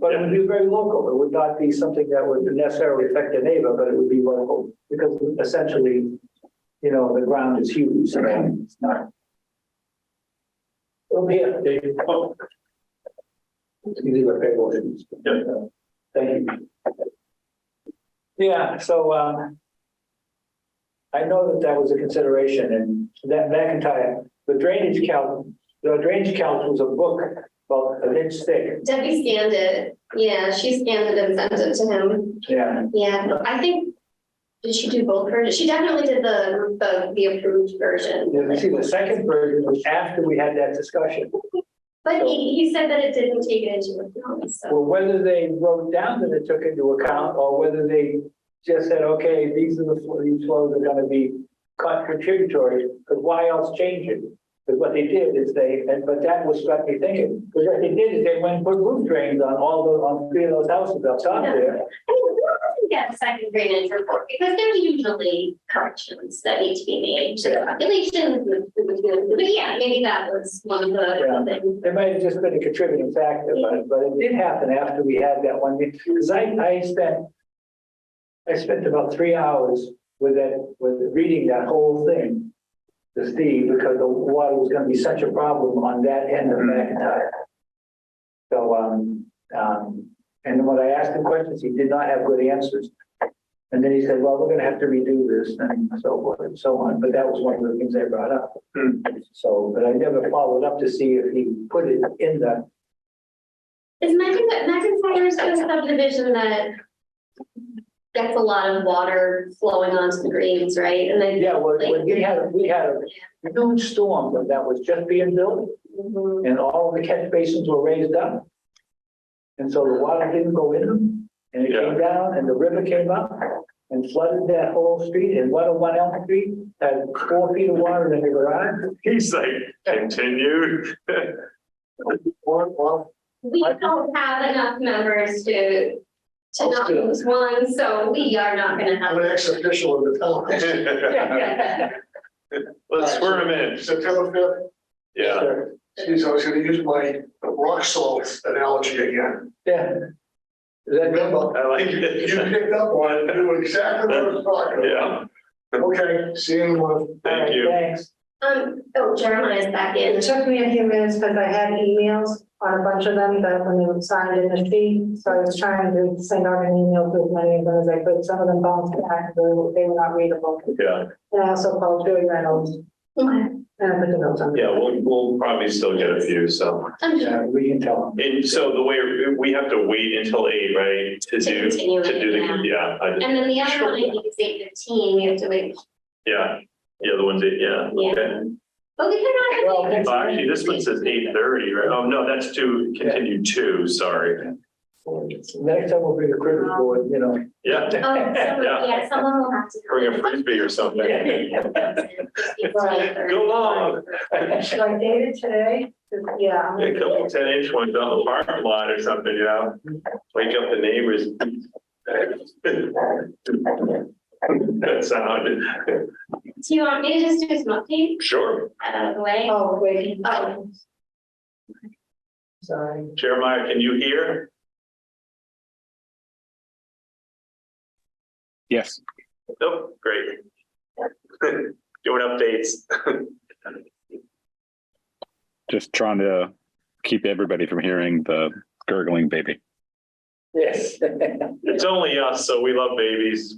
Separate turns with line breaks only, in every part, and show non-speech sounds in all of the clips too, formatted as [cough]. But it would be very local. It would not be something that would necessarily affect the neighbor, but it would be local. Because essentially, you know, the ground is huge. so it's not- Over here, Dave. You do a fair motion.
Yeah.
Thank you. Yeah, so, um, I know that that was a consideration and that McIntyre, the drainage calc, the drainage calc was a book about an inch thick.
Debbie scanned it. Yeah, she scanned it and sent it to him.
Yeah.
Yeah, I think, did she do both versions? She definitely did the, the, the approved
Yeah,
version.
but see, the second version was after we had that discussion.
But he, he said that it didn't take it into account, so.
Well, whether they wrote down that it took into account or whether they just said, okay, these are the, fl- these flows are gonna be cut contributory, because why else change it? Because what they did is they, and, but that was what they thinking, because what they did is they went and put roof drains on all the, on three of those houses up top there.
I mean, who doesn't get a second drainage report? Because there's usually corrections that need to be made to the calculations. and- But yeah, maybe that was one of
Yeah.
the things.
It might have just been a contributing factor, but, but it did happen after we had that one meeting, because I, I spent. I spent about three hours with that, with reading that whole thing. To Steve, because the water was gonna be such a problem on that end of McIntyre. So, um, um, and when I asked him questions, he did not have good answers. And then he said, well, we're gonna have to redo this and so forth and so on, but that was one of the things I brought up. So, but I never followed up to see if he put it in the,
Is McIntyre, McIntyre's a subdivision that gets a lot of water flowing onto the greens, right? And then.
yeah, well, when we had, we had a huge storm that- that was just being built
Mhm.
and all the catch basins were raised up. And so the water didn't go in them and it came down and the river came up and flooded that whole street and one oh one Elm Street had four feet of water in the garage.
He's like, continue. [laughs]
Or, well,
We don't have enough members to, to not
Still.
lose one, so we are not gonna have.
I'm an ex-official of the town.
[laughs] Let's swear him in.
September fifth,
Yeah.
sure.
geez, I was gonna use my rock salt analogy again.
Yeah. Is that-
Remember,
I like
you
it.
picked up on, it. you knew exactly what I was talking about.
Yeah,
Okay, see you in a month.
thank you.
Thanks.
Um, oh, Jeremiah's back in.
It took me a few minutes because I had emails on a bunch of them that when they were signed in the sheet, so I was trying to send out an email to as many of them as I could. Some of them bounced back, they were they were not readable.
Yeah,
And I also called Joey Reynolds
Okay,
and I put the notes on.
yeah, we'll, we'll probably still get a few, so.
I'm sure.
Yeah, we can tell him.
And so the way, we have to wait until eight, right? To do,
continue
to
it,
do
yeah.
the, yeah, I did-
And then the other one, I think is eight fifteen, you have to wait.
yeah, the other one's eight, yeah,
Yeah.
okay.
But we could
Well,
[laughs]
not. have-
Oh, Actually, this one says eight thirty, right? Oh, no, that's to continue two, sorry.
Next time we'll bring a cricket board, you know.
Yeah,
Oh, someone, yeah, someone will have to.
bring a frisbee or [laughs] something. Go long.
So I dated today, yeah. I'm
A
gonna-
couple ten inch ones on the parking lot or something, you know, wake up the neighbors. That sounded,
Do you want me to just do some updates
sure,
out of the way?
Oh, wait, oh,
Oh,
sorry.
Jeremiah, can you hear?
Yes.
Nope, great. [laughs] Doing updates.
Just trying to keep everybody from hearing the gurgling baby.
[laughs] Yes. [laughs]
It's only us, so we love babies.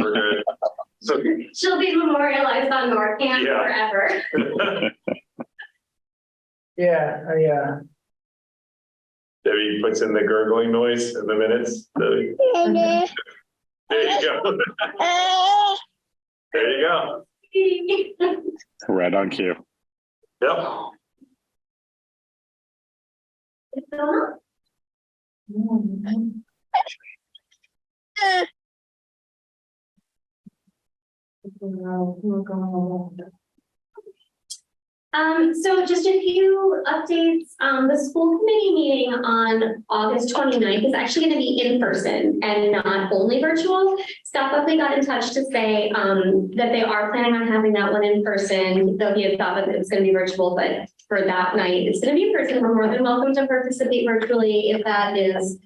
We're good. So, [laughs]
she'll be memorialized on Norcan
Yeah.
forever. [laughs]
Yeah, I, uh,
Debbie puts in the gurgling noise in the minutes. Debbie.
[laughs]
There you go. [laughs] There you go.
Right on cue.
Yep.
No, I'm going along.
Um, so just a few updates, um, the school committee meeting on August 29th is actually gonna be in person and not only virtual. Scott Buckley got in touch to say, um, that they are planning on having that one in person, though he had thought that it was gonna be virtual, but for that night, it's gonna be in person, we're more than welcome to participate virtually if that is